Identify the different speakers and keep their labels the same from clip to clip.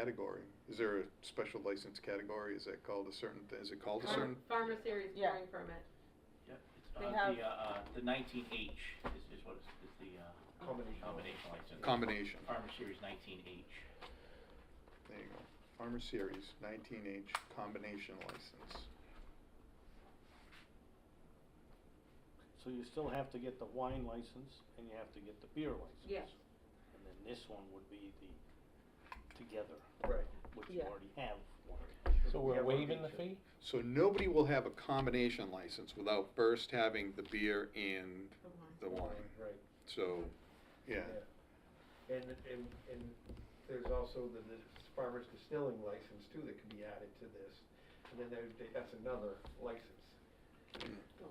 Speaker 1: category? Is there a special license category? Is that called a certain, thi- is it called a
Speaker 2: Farm-
Speaker 1: certain?
Speaker 2: Farmer series
Speaker 3: Yeah.
Speaker 2: growing permit.
Speaker 4: Yep, it's,
Speaker 3: They
Speaker 4: uh,
Speaker 3: have-
Speaker 4: the, uh, uh, the nineteen H is, is what is, is the, uh.
Speaker 5: Combination.
Speaker 4: Combination license.
Speaker 1: Combination.
Speaker 4: Farmer Series nineteen H.
Speaker 1: There you go. Farmer Series, nineteen H combination license.
Speaker 5: So you still have to get the wine license and you have to get the beer license.
Speaker 2: Yeah.
Speaker 5: And then this one would be the together,
Speaker 6: Right.
Speaker 5: which you
Speaker 3: Yeah.
Speaker 5: already have one.
Speaker 6: So we're
Speaker 5: Yeah, we're
Speaker 6: waiving the
Speaker 5: good.
Speaker 6: fee?
Speaker 1: So nobody will have a combination license without first having the beer and the wine.
Speaker 6: Right.
Speaker 1: So, yeah,
Speaker 6: Yeah. And, and, and there's also the, the farmer's distilling license too that can be added to this. And then there, they- that's another license.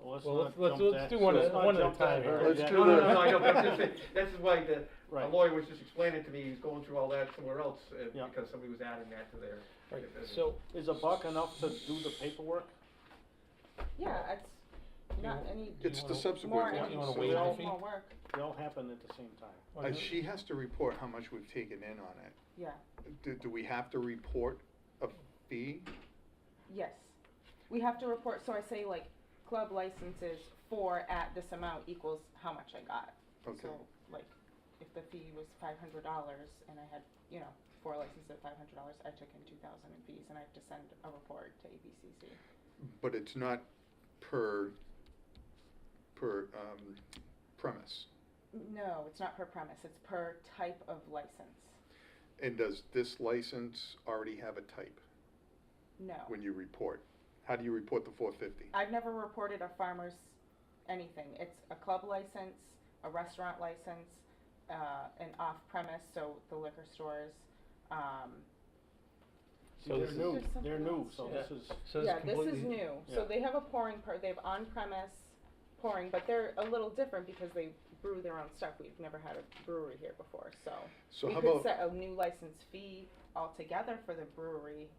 Speaker 5: Well, let's
Speaker 6: Well,
Speaker 5: not
Speaker 6: let's- let's-
Speaker 5: jump
Speaker 6: let's
Speaker 5: that-
Speaker 6: do one
Speaker 5: let's
Speaker 6: at-
Speaker 5: not
Speaker 6: one at a
Speaker 5: jump that
Speaker 6: time here.
Speaker 5: early.
Speaker 1: Let's
Speaker 5: That-
Speaker 1: do
Speaker 6: No, no,
Speaker 1: the-
Speaker 6: no, I know, but I'm just saying, this is why the, a
Speaker 5: Right.
Speaker 6: lawyer was just explaining to me, he was going through all that somewhere else, uh,
Speaker 5: Yeah.
Speaker 6: because somebody was adding that to their.
Speaker 7: Right,
Speaker 6: their business.
Speaker 7: so,
Speaker 5: Is a buck enough to do the paperwork?
Speaker 3: Yeah, it's not
Speaker 7: You-
Speaker 3: any
Speaker 7: Do you
Speaker 1: it's the
Speaker 7: wanna-
Speaker 1: subsequent
Speaker 3: more,
Speaker 7: want-
Speaker 1: one.
Speaker 7: you wanna
Speaker 1: so-
Speaker 7: waive
Speaker 3: any
Speaker 7: the
Speaker 3: more
Speaker 7: fee?
Speaker 3: more work,
Speaker 5: They all happen at the same time.
Speaker 7: Well,
Speaker 1: Uh,
Speaker 7: you-
Speaker 1: she has to report how much we've taken in on it.
Speaker 3: yeah,
Speaker 1: Do, do we have to report a fee?
Speaker 3: yes. We have to report, so I say like, club licenses for at this amount equals how much I got.
Speaker 1: Okay.
Speaker 3: So, like, if the fee was five hundred dollars and I had, you know, four licenses at five hundred dollars, I took in two thousand in fees and I have to send a report to ABCC.
Speaker 1: But it's not per, per, um, premise.
Speaker 3: No, it's not per premise, it's per type of license,
Speaker 1: And does this license already have a type
Speaker 3: no.
Speaker 1: when you report? How do you report the four fifty?
Speaker 3: I've never reported a farmer's anything. It's a club license, a restaurant license, uh, an off-premise, so the liquor stores. Um,
Speaker 5: See,
Speaker 7: So
Speaker 5: they're
Speaker 7: this is-
Speaker 5: new,
Speaker 3: There's
Speaker 5: they're
Speaker 3: something
Speaker 5: new,
Speaker 3: else
Speaker 5: so
Speaker 3: too.
Speaker 5: this is,
Speaker 7: so it's
Speaker 3: yeah, this is
Speaker 7: completely-
Speaker 3: new. So
Speaker 5: yeah.
Speaker 3: they have a pouring per. They have on-premise pouring, but they're a little different because they brew their own stuff. We've never had a brewery here before, so,
Speaker 1: So
Speaker 3: we
Speaker 1: how
Speaker 3: could
Speaker 1: about,
Speaker 3: set a new license fee altogether for the brewery.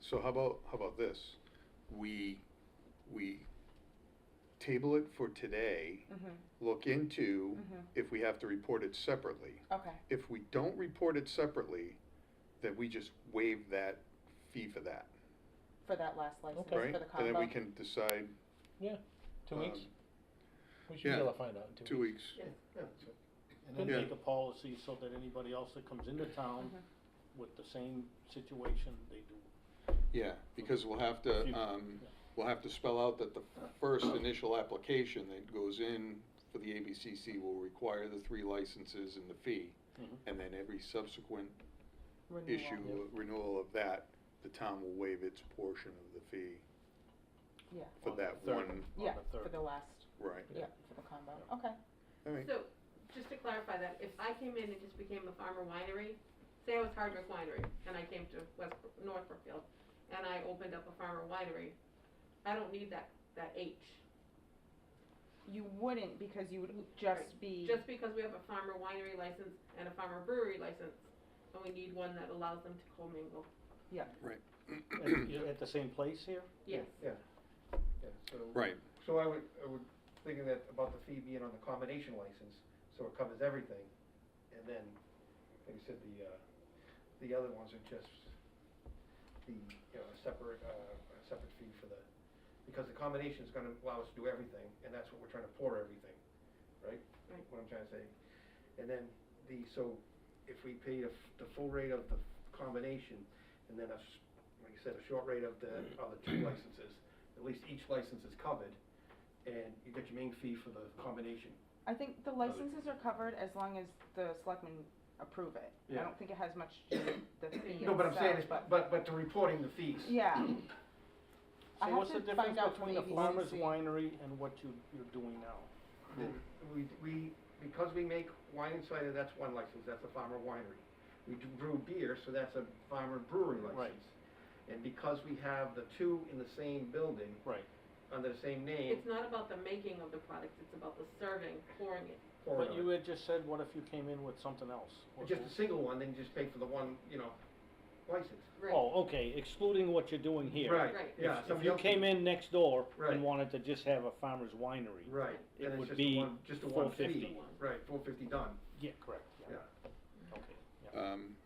Speaker 1: so how about, how about this? We, we table it for today,
Speaker 3: Mm-hmm.
Speaker 1: look into
Speaker 3: Mm-hmm.
Speaker 1: if we have to report it separately.
Speaker 3: Okay.
Speaker 1: If we don't report it separately, then we just waive that fee for that,
Speaker 3: For that last license
Speaker 7: Okay.
Speaker 1: right?
Speaker 3: for the combo.
Speaker 1: And then we can decide,
Speaker 7: Two weeks?
Speaker 1: um,
Speaker 7: We should be
Speaker 1: yeah,
Speaker 7: able to find out in two weeks.
Speaker 1: two weeks.
Speaker 6: Yeah, so-
Speaker 5: and then
Speaker 1: Yeah.
Speaker 5: make a policy so that anybody else that comes into town
Speaker 3: Mhm.
Speaker 5: with the same situation, they do
Speaker 1: Yeah, because we'll have to,
Speaker 5: Few-
Speaker 1: um,
Speaker 5: yeah.
Speaker 1: we'll have to spell out that the first initial application that goes in for the ABCC will require the three licenses and the fee.
Speaker 5: Mhm.
Speaker 1: And then every subsequent
Speaker 3: Renewal.
Speaker 1: issue, renewal of that, the town will waive its portion of the fee
Speaker 3: Yeah.
Speaker 1: for
Speaker 5: On the
Speaker 1: that
Speaker 5: third.
Speaker 1: one,
Speaker 5: on
Speaker 3: yeah,
Speaker 5: the third.
Speaker 3: for the last.
Speaker 1: right.
Speaker 3: Yeah, for the combo. Okay.
Speaker 1: All right,
Speaker 2: So, just to clarify that, if I came in and just became a farmer winery, say I was Hardwick Winery, and I came to West, North Brookfield, and I opened up a farmer winery, I don't need that, that H.
Speaker 3: You wouldn't because you would just be,
Speaker 2: Just because we have a farmer winery license and a farmer brewery license, and we need one that allows them to commingle,
Speaker 5: At- yeah, At the same place here?
Speaker 2: yes.
Speaker 6: yeah, so.
Speaker 1: right,
Speaker 6: So I would, I would thinking that about the fee being on the combination license, so it covers everything, and then, like you said, the, uh, the other ones are just the, you know, a separate, uh, a separate fee for the, because the combination is gonna allow us to do everything, and that's what we're trying to pour everything, right?
Speaker 2: Right.
Speaker 6: What I'm trying to say, and then the, so if we pay the, f- the full rate of the combination, and then a, s- like you said, a short rate of the, of the two licenses, at least each license is covered, and you get your main fee for the combination.
Speaker 3: I think the licenses are covered as long as the selectmen approve it. I
Speaker 6: Yeah.
Speaker 3: don't think it has much to do with the fee
Speaker 6: No, but I'm saying
Speaker 3: itself,
Speaker 6: is, but, but the reporting the fees.
Speaker 3: Yeah,
Speaker 5: So
Speaker 3: I have
Speaker 5: what's the
Speaker 3: to
Speaker 5: difference
Speaker 3: find out
Speaker 5: between a
Speaker 3: from
Speaker 5: farmer's
Speaker 3: ABCC.
Speaker 5: winery and what you, you're doing now?
Speaker 6: We, we, because we make wine and cider, that's one license, that's a farmer winery. We do brew beer, so that's a farmer brewery
Speaker 5: Right.
Speaker 6: license. And because we have the two in the same building,
Speaker 5: Right.
Speaker 6: under the same name.
Speaker 2: It's not about the making of the product, it's about the serving, pouring it.
Speaker 6: or
Speaker 5: But you had just said, what if you came in with something else? What-
Speaker 6: Just a single one, then you just pay for the one, you know, license.
Speaker 5: Oh, okay, excluding what you're doing here.
Speaker 6: Right,
Speaker 2: Right.
Speaker 6: yeah.
Speaker 5: If- If
Speaker 6: somebody
Speaker 5: you
Speaker 6: else-
Speaker 5: came in next door
Speaker 6: Right.
Speaker 5: and wanted to just have a farmer's winery.
Speaker 6: Right,
Speaker 5: it
Speaker 6: and it's
Speaker 5: would
Speaker 6: just
Speaker 5: be
Speaker 6: a one, just a one
Speaker 5: 450.
Speaker 6: fee. Right, four fifty done,
Speaker 5: Yeah, correct,
Speaker 6: yeah.
Speaker 5: yeah, okay, yeah.
Speaker 1: um,